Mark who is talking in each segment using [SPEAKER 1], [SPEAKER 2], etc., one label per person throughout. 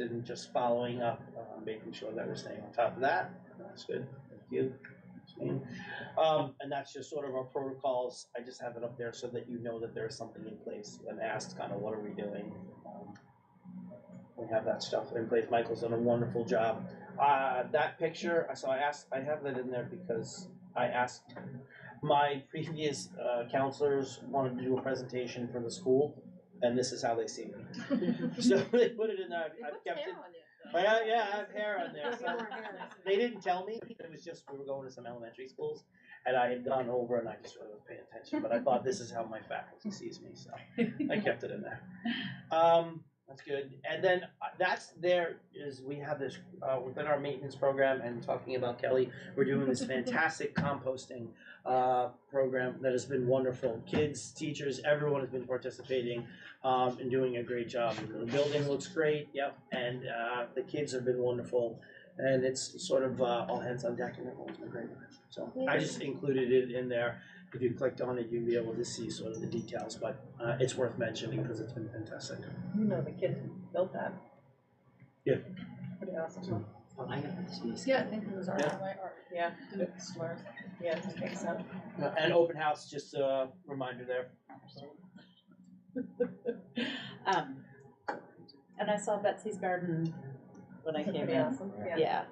[SPEAKER 1] and just following up, uh, making sure that we're staying on top of that. That's good. Thank you. Um, and that's just sort of our protocols. I just have it up there so that you know that there is something in place when asked kind of what are we doing. Um, We have that stuff in place. Michael's done a wonderful job. Uh, that picture, so I asked, I have that in there because I asked my previous uh, counselors wanted to do a presentation for the school, and this is how they see me. so they put it in there. I've, I've kept it. But yeah, yeah, I have hair on there. So they didn't tell me. It was just we were going to some elementary schools, and I had gone over and I just wasn't paying attention. But I thought this is how my faculty sees me, so I kept it in there. Um, that's good. And then uh, that's there is we have this uh, within our maintenance program and talking about Kelly. We're doing this fantastic composting uh, program that has been wonderful. Kids, teachers, everyone has been participating um, and doing a great job. The building looks great, yep, and uh, the kids have been wonderful. And it's sort of uh, all hands on deck, and everyone's been great. So I just included it in there. If you clicked on it, you'd be able to see sort of the details, but uh, it's worth mentioning because it's been fantastic.
[SPEAKER 2] You know, the kids built that.
[SPEAKER 1] Yeah.
[SPEAKER 2] Pretty awesome.
[SPEAKER 3] Oh, I got this one.
[SPEAKER 4] Yeah, I think it was our,
[SPEAKER 1] Yeah.
[SPEAKER 4] my art.
[SPEAKER 2] Yeah,
[SPEAKER 4] Yeah. Slurs.
[SPEAKER 2] yeah, it makes sense.
[SPEAKER 1] Uh, and open house, just a reminder there.
[SPEAKER 5] Um, and I saw Betsy's garden when I came
[SPEAKER 2] Pretty
[SPEAKER 5] in.
[SPEAKER 2] awesome, yeah.
[SPEAKER 5] Yeah.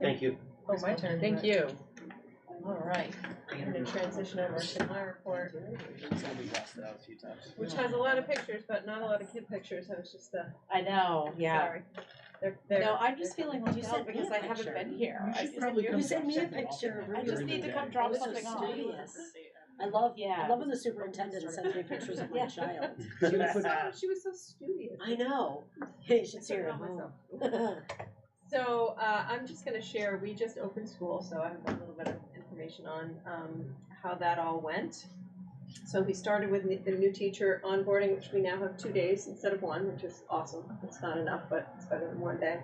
[SPEAKER 1] Thank you.
[SPEAKER 2] Oh, my turn.
[SPEAKER 4] Thank you.
[SPEAKER 2] All right, I'm gonna transition over to my report.
[SPEAKER 1] We lost it out a few times.
[SPEAKER 2] Which has a lot of pictures, but not a lot of kid pictures, I was just, uh,
[SPEAKER 5] I know, yeah.
[SPEAKER 2] sorry. They're, they're.
[SPEAKER 5] No, I'm just feeling
[SPEAKER 3] You
[SPEAKER 5] left
[SPEAKER 3] sent
[SPEAKER 5] out
[SPEAKER 3] me
[SPEAKER 5] because
[SPEAKER 3] a
[SPEAKER 5] I haven't
[SPEAKER 3] picture.
[SPEAKER 5] been here.
[SPEAKER 3] You
[SPEAKER 5] I
[SPEAKER 3] should
[SPEAKER 5] just-
[SPEAKER 3] probably
[SPEAKER 5] you
[SPEAKER 3] come
[SPEAKER 5] sent
[SPEAKER 3] drop
[SPEAKER 5] me a
[SPEAKER 3] something off
[SPEAKER 5] picture
[SPEAKER 3] at
[SPEAKER 5] of
[SPEAKER 3] the
[SPEAKER 5] I
[SPEAKER 3] end
[SPEAKER 5] just
[SPEAKER 3] of
[SPEAKER 5] need
[SPEAKER 3] the
[SPEAKER 5] to come
[SPEAKER 3] day.
[SPEAKER 5] drop
[SPEAKER 3] This is
[SPEAKER 5] something off.
[SPEAKER 3] serious. I love, I
[SPEAKER 5] Yeah.
[SPEAKER 3] love when the superintendent sends me pictures of my
[SPEAKER 5] Yeah.
[SPEAKER 3] child.
[SPEAKER 2] She was so, she was so studious.
[SPEAKER 3] I know. You
[SPEAKER 2] I
[SPEAKER 3] should see
[SPEAKER 2] couldn't
[SPEAKER 3] her
[SPEAKER 2] help myself.
[SPEAKER 3] home.
[SPEAKER 2] So uh, I'm just going to share. We just opened school, so I have a little bit of information on um, how that all went. So we started with the new teacher onboarding, which we now have two days instead of one, which is awesome. It's not enough, but it's better than one day.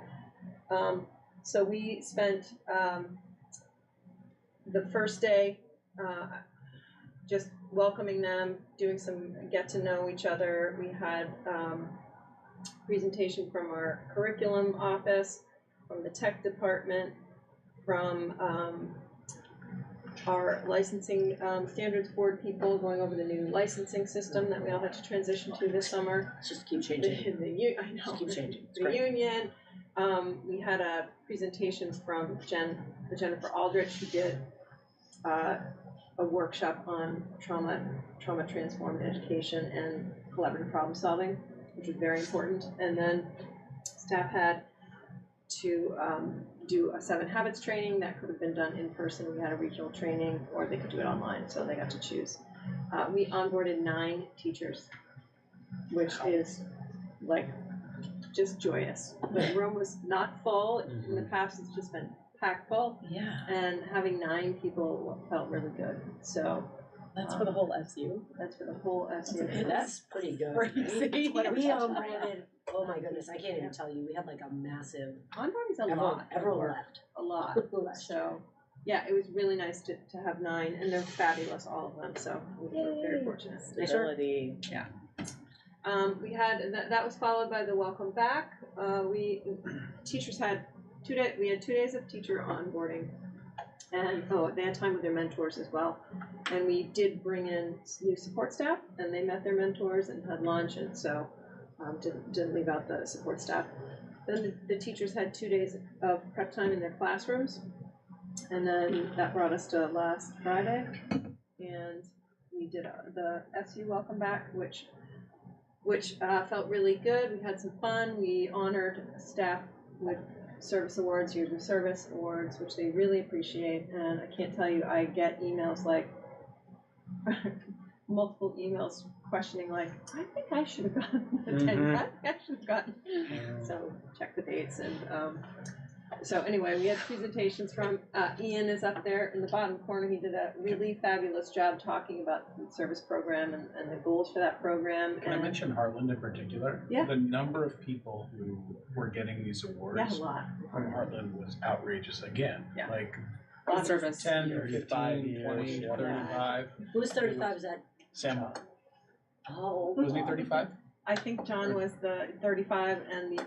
[SPEAKER 2] Um, so we spent um, the first day uh, just welcoming them, doing some get to know each other. We had um, presentation from our curriculum office from the tech department, from um, our licensing um, standards board people going over the new licensing system that we all had to transition to this summer.
[SPEAKER 3] Just keep
[SPEAKER 2] The,
[SPEAKER 3] changing.
[SPEAKER 2] the, u- I know
[SPEAKER 3] Just keep changing. It's
[SPEAKER 2] the
[SPEAKER 3] great.
[SPEAKER 2] union. Um, we had a presentation from Jen, Jennifer Aldrich, who did uh, a workshop on trauma, trauma transformed education and collaborative problem solving, which was very important. And then staff had to um, do a seven habits training that could have been done in person. We had a regional training, or they could do it online, so they got to choose. Uh, we onboarded nine teachers, which is like just joyous. The room was not full. In the past, it's just been packed full,
[SPEAKER 3] Yeah,
[SPEAKER 2] and having nine people felt really good. So um,
[SPEAKER 5] That's for the whole SU.
[SPEAKER 2] that's for the whole SU.
[SPEAKER 3] that's pretty good.
[SPEAKER 5] Crazy.
[SPEAKER 3] We we onboarded, oh my goodness, I can't even tell you, we had like a massive,
[SPEAKER 2] Onboarding's a
[SPEAKER 3] everyone,
[SPEAKER 2] lot. of
[SPEAKER 3] everyone
[SPEAKER 2] work,
[SPEAKER 3] left.
[SPEAKER 2] A lot.
[SPEAKER 3] Last year.
[SPEAKER 2] So, yeah, it was really nice to, to have nine, and they're fabulous, all of them. So we were very fortunate.
[SPEAKER 5] Stability.
[SPEAKER 2] Um, we had that, that was followed by the welcome back. Uh, we teachers had two day we had two days of teacher onboarding, and oh, they had time with their mentors as well. And we did bring in s- new support staff, and they met their mentors and had lunch, and so um, didn't didn't leave out the support staff. Then the, the teachers had two days of prep time in their classrooms, and then that brought us to last Friday, and we did uh, the SU welcome back, which which uh, felt really good. We had some fun. We honored staff with service awards, years of service awards, which they really appreciate. And I can't tell you, I get emails like multiple emails questioning, like, I think I should have gotten the 10
[SPEAKER 1] Mhm.
[SPEAKER 2] I think I should have gotten. So check the dates and. Um, so anyway, we had presentations from uh, Ian is up there in the bottom corner. He did a really fabulous job talking about the service program and, and the goals for that program.
[SPEAKER 6] Can I
[SPEAKER 2] and
[SPEAKER 6] mention Heartland in particular?
[SPEAKER 2] Yeah.
[SPEAKER 6] The number of people who were getting these
[SPEAKER 2] Yeah, a
[SPEAKER 6] awards
[SPEAKER 2] lot.
[SPEAKER 6] from Heartland was outrageous again.
[SPEAKER 2] Yeah.
[SPEAKER 6] Like
[SPEAKER 2] Lot of
[SPEAKER 1] service.
[SPEAKER 6] ten,
[SPEAKER 1] Five
[SPEAKER 6] fifteen,
[SPEAKER 1] years,
[SPEAKER 6] twenty,
[SPEAKER 1] yeah.
[SPEAKER 6] thirty-five.
[SPEAKER 3] Who was oh, thirty-five, is that?
[SPEAKER 6] Sam,
[SPEAKER 3] Oh.
[SPEAKER 6] wasn't he
[SPEAKER 3] God.
[SPEAKER 6] thirty-five?
[SPEAKER 2] I think John was the um, thirty-five and the